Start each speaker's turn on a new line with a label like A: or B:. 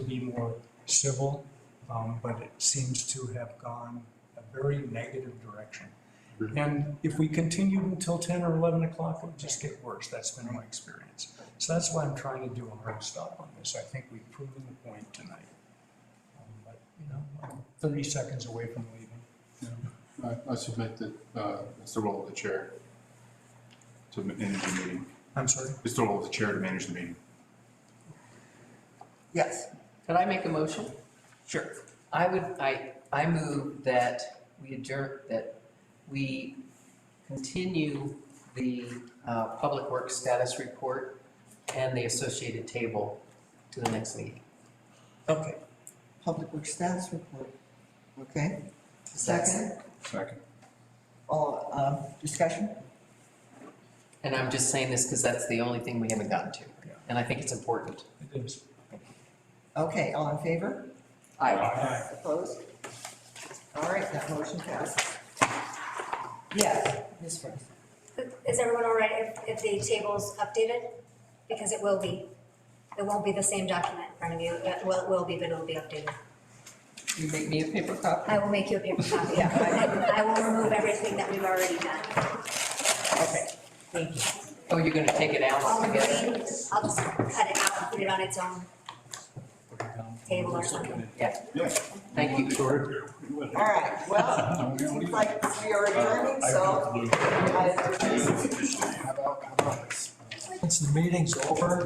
A: be more civil, um, but it seems to have gone a very negative direction. And if we continued until ten or eleven o'clock, it would just get worse. That's been my experience. So that's why I'm trying to do a hard stop on this. I think we've proven the point tonight. Um, But, you know, I'm thirty seconds away from leaving.
B: I, I submit that, uh, it's the role of the chair to manage the meeting.
A: I'm sorry?
B: It's the role of the chair to manage the meeting.
C: Yes,
D: Could I make a motion?
C: sure.
D: I would, I, I move that we adjourn, that we continue the uh, Public Works status report and the associated table to the next meeting.
C: Okay. Public Works status report. Okay. Second,
B: Second.
C: all, um, discussion?
D: And I'm just saying this because that's the only thing we haven't gotten to.
A: Yeah.
D: And I think it's important.
A: It is.
C: Okay, all in favor?
A: Aye.
C: Opposed? All right, that motion passes. Yes, Ms. French.
E: Is everyone all right if, if the table's updated? Because it will be. It won't be the same document in front of you. It will, it will be, but it'll be updated.
D: You make me a paper copy?
E: I will make you a paper copy. I will remove everything that we've already done.
C: Okay, thank you.
D: Oh, you're going to take it out
E: All the
D: altogether?
E: green, I'll just cut it out and put it on its own table or something.
B: Yeah.
D: Thank you.
C: All right, well, it seems like we are adjourning, so. I-
B: How about, how about this?
A: Since the meeting's over,